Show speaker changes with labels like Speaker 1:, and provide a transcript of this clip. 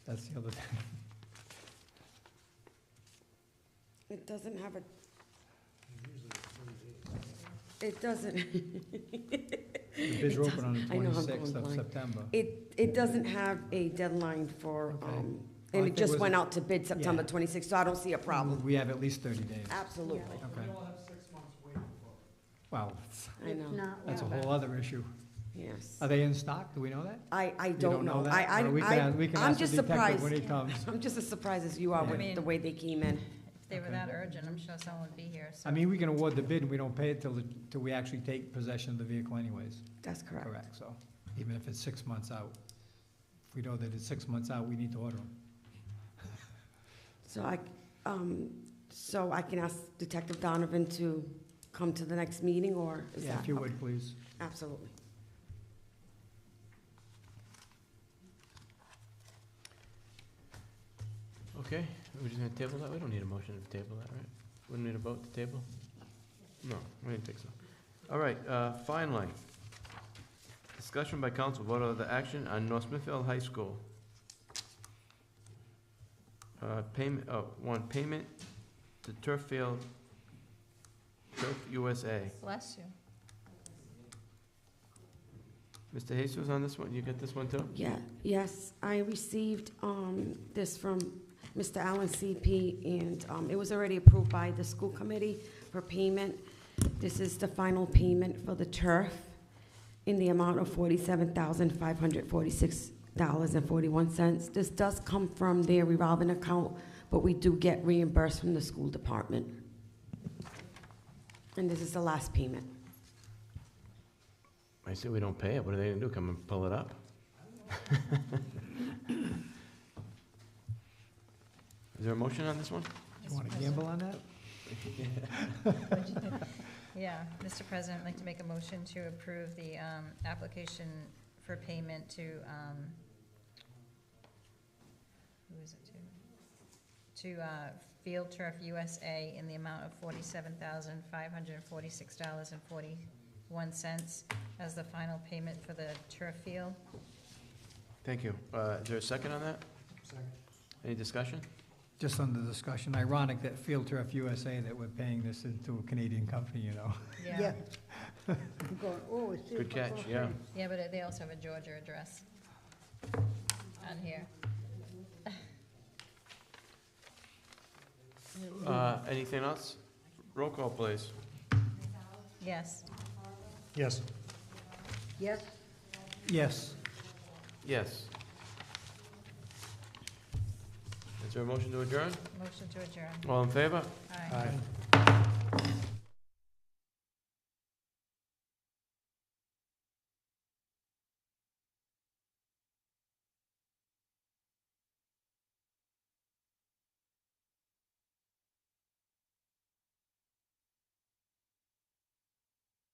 Speaker 1: That's the other thing.
Speaker 2: It doesn't have a, it doesn't,
Speaker 1: The bids are open on the
Speaker 2: I know, I'm going
Speaker 1: twenty-sixth of
Speaker 2: blind.
Speaker 1: September.
Speaker 2: it, it doesn't have a deadline for,
Speaker 1: Okay.
Speaker 2: um,
Speaker 1: Well, I
Speaker 2: and
Speaker 1: think
Speaker 2: it just
Speaker 1: was
Speaker 2: went
Speaker 1: it-
Speaker 2: out to bid September
Speaker 1: Yeah. Mm-hmm.
Speaker 2: twenty-sixth, so I don't see a problem.
Speaker 1: We have at least thirty days.
Speaker 2: Absolutely.
Speaker 1: Okay,
Speaker 3: We all have six months waiting for it.
Speaker 1: wow,
Speaker 2: I
Speaker 4: If
Speaker 2: know,
Speaker 4: not,
Speaker 1: that's a
Speaker 4: we'll-
Speaker 1: whole other issue.
Speaker 2: yes.
Speaker 1: Are they in stock? Do we know that?
Speaker 2: I, I
Speaker 1: Uh, You
Speaker 2: don't know.
Speaker 1: that?
Speaker 2: I, I,
Speaker 1: Well, we can
Speaker 2: I-
Speaker 1: ask- we can
Speaker 2: I'm
Speaker 1: ask the
Speaker 2: just
Speaker 1: detective
Speaker 2: surprised.
Speaker 1: When he comes.
Speaker 2: I'm just as surprised as you are
Speaker 1: Yeah.
Speaker 2: with the way they came in.
Speaker 4: If they were
Speaker 1: Okay.
Speaker 4: that urgent, I'm sure someone would be here, so.
Speaker 1: I mean, we can award the bid and we don't pay it till, the- till we actually take possession of the vehicle anyways.
Speaker 2: That's correct.
Speaker 1: Correct, so even if it's six months out, if we know that it's six months out, we need to order them.
Speaker 2: So I, um, so I can ask Detective Donovan to come to the next meeting, or is
Speaker 1: Yeah,
Speaker 2: that?
Speaker 1: if you would, please.
Speaker 2: Absolutely.
Speaker 5: Okay, we're just gonna table that, we don't need a motion to table that, right? We don't need a vote to table? No, I didn't think so. All right, uh, finally, discussion by council, vote of the action on North Smithfield High School. Uh, payment, oh, one, payment to turf field, turf USA.
Speaker 4: Bless you.
Speaker 5: Mr. Jesus on this one, you get this one too?
Speaker 2: Yeah, yes, I received, um, this from Mr. Allen CP, and, um, it was already approved by the school committee for payment. This is the final payment for the turf in the amount of forty-seven thousand, five hundred forty-six dollars and forty-one cents. This does come from their revolving account, but we do get reimbursed from the school department. And this is the last payment.
Speaker 5: I say we don't pay it, what are they gonna do, come and pull it up? Is there a motion on this one?
Speaker 1: You want to gamble on that?
Speaker 4: Yeah, Mr. President, I'd like to make a motion to approve the um, application for payment to, um, who is it to? To uh, Field Turf USA in the amount of forty-seven thousand, five hundred and forty-six dollars and forty-one cents as the final payment for the turf field.
Speaker 5: Thank you. Uh, Is there a second on that?
Speaker 3: Second.
Speaker 5: Any discussion?
Speaker 1: Just under discussion, ironic that Field Turf USA that we're paying this into a Canadian company, you know?
Speaker 4: Yeah,
Speaker 6: I'm going, oh, it's.
Speaker 5: Good catch, yeah.
Speaker 4: yeah, but they also have a Georgia address on here.
Speaker 5: Uh, Anything else? Roll call, please.
Speaker 4: Yes.
Speaker 3: Yes.
Speaker 6: Yes,
Speaker 1: Yes,
Speaker 5: Yes. Is there a motion to adjourn?
Speaker 4: Motion to adjourn.
Speaker 5: All in favor?
Speaker 4: Aye.
Speaker 3: Aye.